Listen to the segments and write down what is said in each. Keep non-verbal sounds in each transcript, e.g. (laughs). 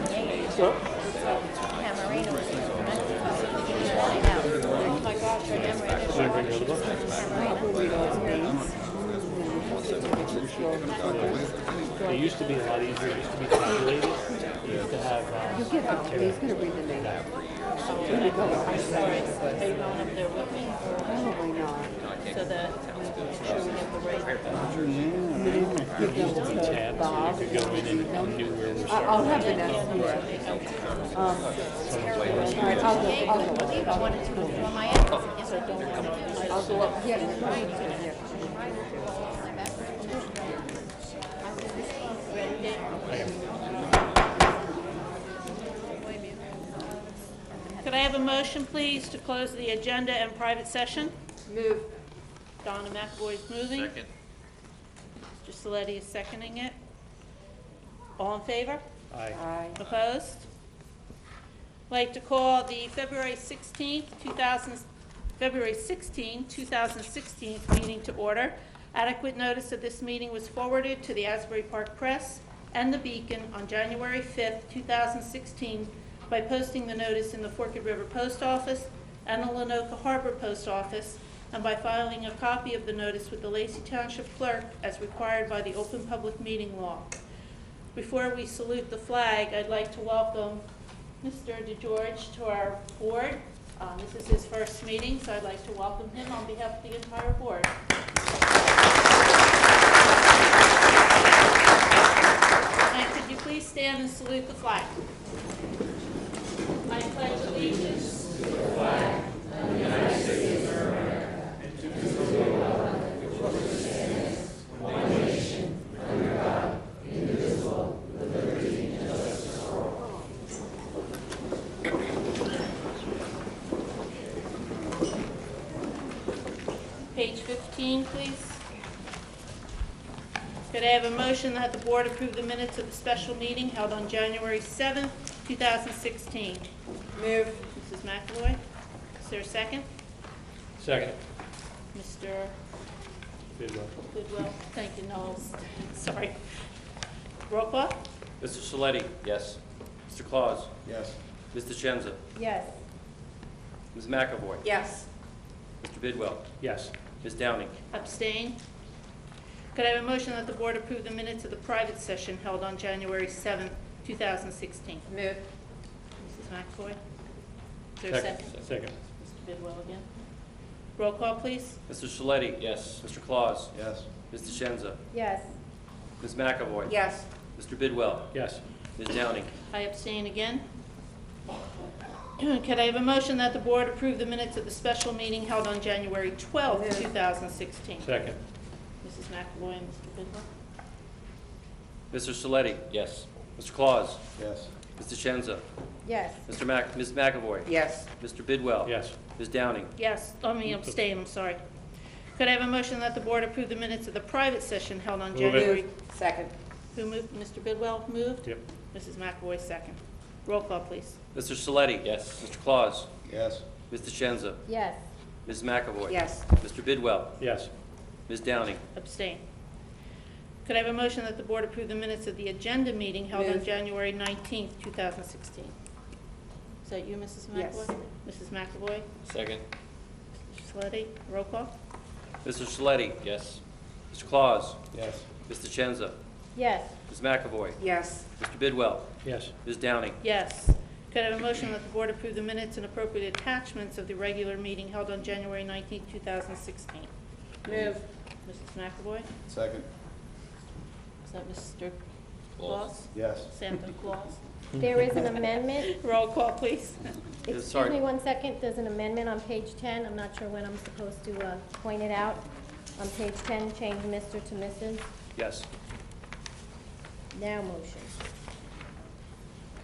Oh It used to be a lot easier, it used to be tabulated, you used to have, um, Give him, he's gonna read the name. I saw it, they going up there with me, Probably not. so that we sure we have the right. Give them to tabs, Bob. so you could go in and knew where we were I- I'll starting. have the next one. Um, all right, I'll go, I'll go. I'll go up, yeah, yeah, Could I have a motion, please, to close the agenda and private session? yeah. Move. Donna McAvoy's moving. Second. Mr. Saletti is seconding it. All in favor? Aye. Aye. Opposed? Like to call the February 16th, 2000, February 16, 2016 meeting to order. Adequate notice of this meeting was forwarded to the Asbury Park Press and the Beacon on January 5th, 2016 by posting the notice in the Forked River Post Office and the Lenoka Harbor Post Office and by filing a copy of the notice with the Lacey Township Clerk as required by the Open Public Meeting Law. Before we salute the flag, I'd like to welcome Mr. DeGeorge to our board. Uh, This is his first meeting, so I'd like to welcome him on behalf of the entire board. And could you please stand and salute the flag? I pledge allegiance Page 15, please. Could I have a motion that the board approve the minutes of the special meeting held on January 7th, 2016? Move. Mrs. McAvoy, is there a second? Second. Mr. Bidwell. Goodwill, thank you, Knowles, (laughs) sorry. Roll call? Mr. Saletti? Yes. Mr. Claus? Yes. Ms. DeCenza? Yes. Ms. McAvoy? Yes. Mr. Bidwell? Yes. Ms. Downing? Abstain. Could I have a motion that the board approve the minutes of the private session held on January 7th, 2016? Move. Mrs. McAvoy, is there a second? Second. Mr. Bidwell again. Roll call, please. Mr. Saletti? Yes. Mr. Claus? Yes. Ms. DeCenza? Yes. Ms. McAvoy? Yes. Mr. Bidwell? Yes. Ms. Downing? I abstain again. (clears throat) Could I have a motion that the board approve the minutes of the special meeting held on January 12, Move. 2016? Mrs. Second. McAvoy and Mr. Bidwell? Mr. Saletti? Yes. Mr. Claus? Yes. Ms. DeCenza? Yes. Mr. Mac, Ms. McAvoy? Yes. Mr. Bidwell? Yes. Ms. Downing? Yes, I mean abstain, I'm sorry. Could I have a motion that the board approve the minutes of the private session held on Move it. January? Second. Who moved? Mr. Bidwell moved? Yep. Mrs. McAvoy second. Roll call, please. Mr. Saletti? Yes. Mr. Claus? Yes. Ms. DeCenza? Yes. Ms. McAvoy? Yes. Mr. Bidwell? Yes. Ms. Downing? Abstain. Could I have a motion that the board approve the minutes of the agenda meeting held on Move. January 19th, 2016? Is that you, Mrs. Yes. McAvoy? Mrs. McAvoy? Second. Mr. Saletti? Roll call? Mr. Saletti? Yes. Mr. Claus? Yes. Ms. DeCenza? Yes. Ms. McAvoy? Yes. Mr. Bidwell? Yes. Ms. Downing? Yes. Could I have a motion that the board approve the minutes and appropriate attachments of the regular meeting held on January 19th, 2016? Move. Mrs. McAvoy? Second. Is that Mr. Claus? Yes. Santa Claus? There is an amendment. Roll call, please. Yes, Excuse sorry. me one second, there's an amendment on page 10. I'm not sure when I'm supposed to uh, point it out. On page 10, change Mr. to Mrs. Yes. Now motion.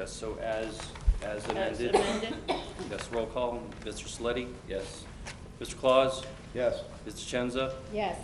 Yes, so as, as As amended. amended? Yes, roll call. Mr. Saletti? Yes. Mr. Claus? Yes. Ms. DeCenza? Yes.